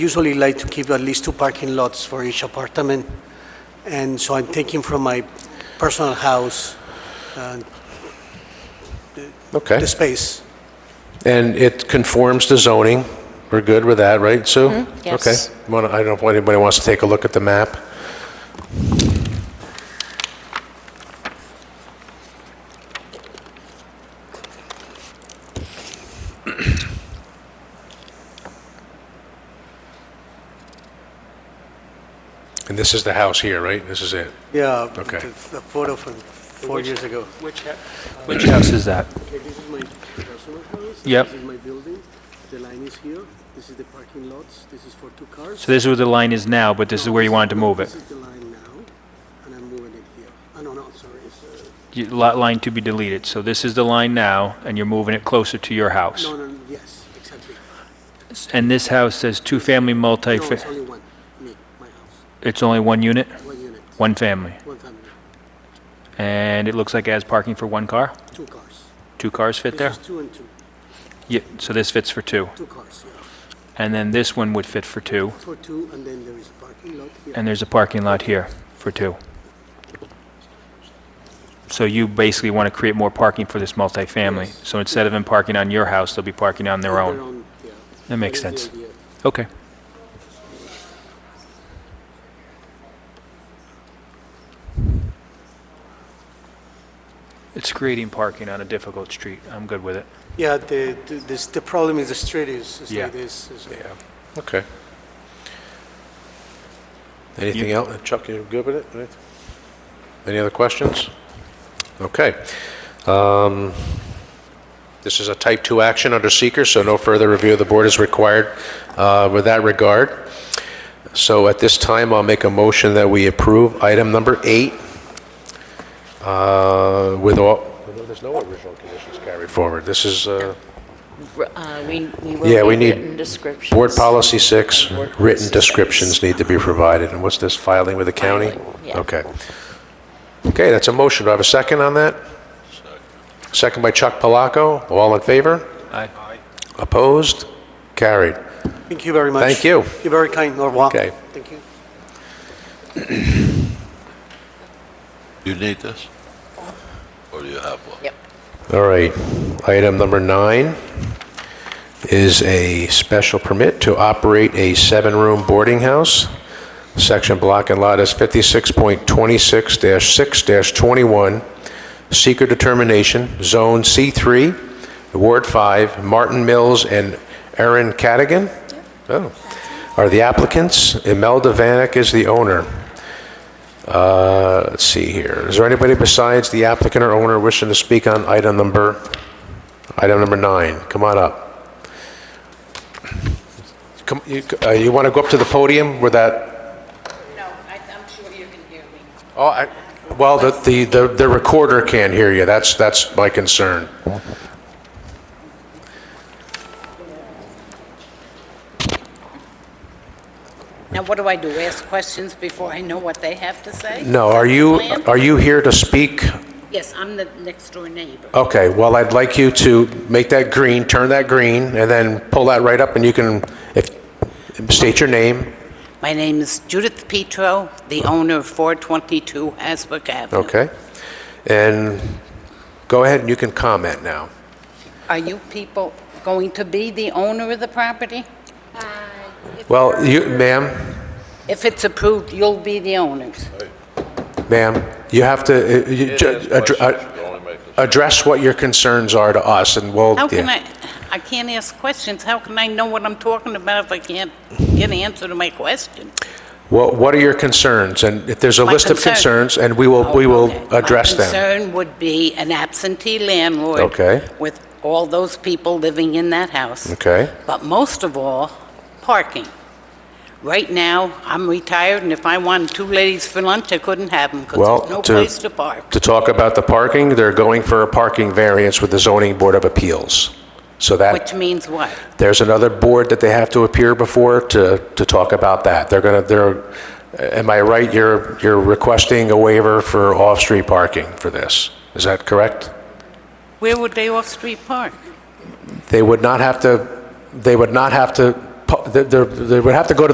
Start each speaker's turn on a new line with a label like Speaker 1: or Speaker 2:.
Speaker 1: usually like to keep at least two parking lots for each apartment, and so I'm taking from my personal house
Speaker 2: Okay.
Speaker 1: the
Speaker 3: Eh?
Speaker 1: space.
Speaker 2: And it conforms to zoning. We're good with that, right, Sue?
Speaker 4: yes.
Speaker 2: Okay. Wanna- I don't know if anybody wants to take a look at the map. And this is the house here, right? This is it?
Speaker 1: Yeah.
Speaker 2: Okay.
Speaker 1: The the photo from four years ago.
Speaker 3: Which house is that?
Speaker 1: Okay, this is my personal house.
Speaker 3: Yep.
Speaker 1: This is my building. The line is here. This is the parking lots. This is for two cars.
Speaker 3: So this is where the line is now, but this is where you wanted to move it.
Speaker 1: This is the line now, and I'm moving it here. Oh, no, no, I'm sorry. It's, uh,
Speaker 3: You- Lot line to be deleted. So this is the line now, and you're moving it closer to your house.
Speaker 1: uh, No, no, no, yes, exactly.
Speaker 3: And this house says two-family multi,
Speaker 1: No, it's only one, me, my house,
Speaker 3: it's only one unit,
Speaker 1: one unit,
Speaker 3: one family.
Speaker 1: one family,
Speaker 3: And it looks like it has parking for one car?
Speaker 1: two cars.
Speaker 3: Two cars fit there?
Speaker 1: This is two and two,
Speaker 3: Yeah, so this fits for two.
Speaker 1: two cars, yeah.
Speaker 3: And then this one would fit for two,
Speaker 1: For two, and then there is a parking lot here.
Speaker 3: and there's a parking lot here for two. So you basically want to create more parking for this multifamily.
Speaker 1: Yes.
Speaker 3: So instead of them parking on your house, they'll be parking on their own.
Speaker 1: yeah.
Speaker 3: That makes
Speaker 1: is the
Speaker 3: sense.
Speaker 1: idea.
Speaker 3: Okay. It's creating parking on a difficult street. I'm good with it.
Speaker 1: Yeah, the, the- this, the problem is the street is, is
Speaker 3: Yeah.
Speaker 1: like this. is-
Speaker 2: Okay. Anything else? Chuck, you good with it? Right. Any other questions? Okay. Um, This is a type 2 action under seeker, so no further review of the board is required uh, with that regard. So at this time, I'll make a motion that we approve item number eight uh, with all, there's no original conditions carried forward. This is uh,
Speaker 4: Uh, We we
Speaker 2: Yeah,
Speaker 4: will
Speaker 2: we need
Speaker 4: need written descriptions.
Speaker 2: Board Policy 6,
Speaker 4: Board Policy
Speaker 2: written
Speaker 4: six.
Speaker 2: descriptions need to be provided, and what's this, filing with the county?
Speaker 4: Filing, yeah.
Speaker 2: Okay. Okay, that's a motion, do I have a second on that? Second by Chuck Palaco, all in favor?
Speaker 3: Aye.
Speaker 2: Opposed? Carried.
Speaker 1: Thank you very much.
Speaker 2: Thank you.
Speaker 1: You're very kind, au revoir.
Speaker 2: Okay.
Speaker 1: Thank you.
Speaker 5: You need this? Or do you have one?
Speaker 4: Yep.
Speaker 2: All right, item number nine is a special permit to operate a seven-room boarding house. Section block and lot is 56.26-6-21, seeker determination, Zone C3, Ward 5, Martin Mills and Aaron Cadigan Oh. are the applicants. Imelda Vanek is the owner. Uh, Let's see here. Is there anybody besides the applicant or owner wishing to speak on item number, item number nine? Come on up. Come- You want to go up to the podium where that,
Speaker 6: No, I, I'm sure you can hear me.
Speaker 2: oh, I- well, the- the the the recorder can't hear you. That's, that's my concern.
Speaker 6: Now, what do I do? Ask questions before I know what they have to say?
Speaker 2: No, are you, are you here to speak?
Speaker 6: Yes, I'm the next-door neighbor.
Speaker 2: Okay, well, I'd like you to make that green, turn that green, and then pull that right up, and you can if state your name.
Speaker 6: My name is Judith Petro, the owner of 422 Hasbrook Avenue.
Speaker 2: Okay. And go ahead and you can comment now.
Speaker 6: Are you people going to be the owner of the property? Uh,
Speaker 2: Well, you, ma'am,
Speaker 6: If it's approved, you'll be the owners.
Speaker 2: ma'am, you have to, uh, you ju- addr- uh, address what your concerns are to us and we'll.
Speaker 6: How can
Speaker 2: Oh, yeah.
Speaker 6: I, I can't ask questions. How can I know what I'm talking about if I can't get an answer to my question?
Speaker 2: What, what are your concerns? And if there's a
Speaker 6: My
Speaker 2: list of
Speaker 6: concern-
Speaker 2: concerns, and we will, we will
Speaker 6: Okay.
Speaker 2: address
Speaker 6: My
Speaker 2: them.
Speaker 6: concern would be an absentee landlord.
Speaker 2: Okay.
Speaker 6: With all those people living in that house.
Speaker 2: Okay,
Speaker 6: But most of all, parking. Right now, I'm retired, and if I wanted two ladies for lunch, I couldn't have them because
Speaker 2: well.
Speaker 6: there's no place to park.
Speaker 2: To talk about the parking, they're going for a parking variance with the zoning board of appeals. So that.
Speaker 6: Which means what?
Speaker 2: There's another board that they have to appear before to, to talk about that. They're going to, they're, am I right, you're, you're requesting a waiver for off-street parking for this? Is that correct?
Speaker 6: Where would they off-street park?
Speaker 2: They would not have to, they would not have to pu- there- there there would have to go to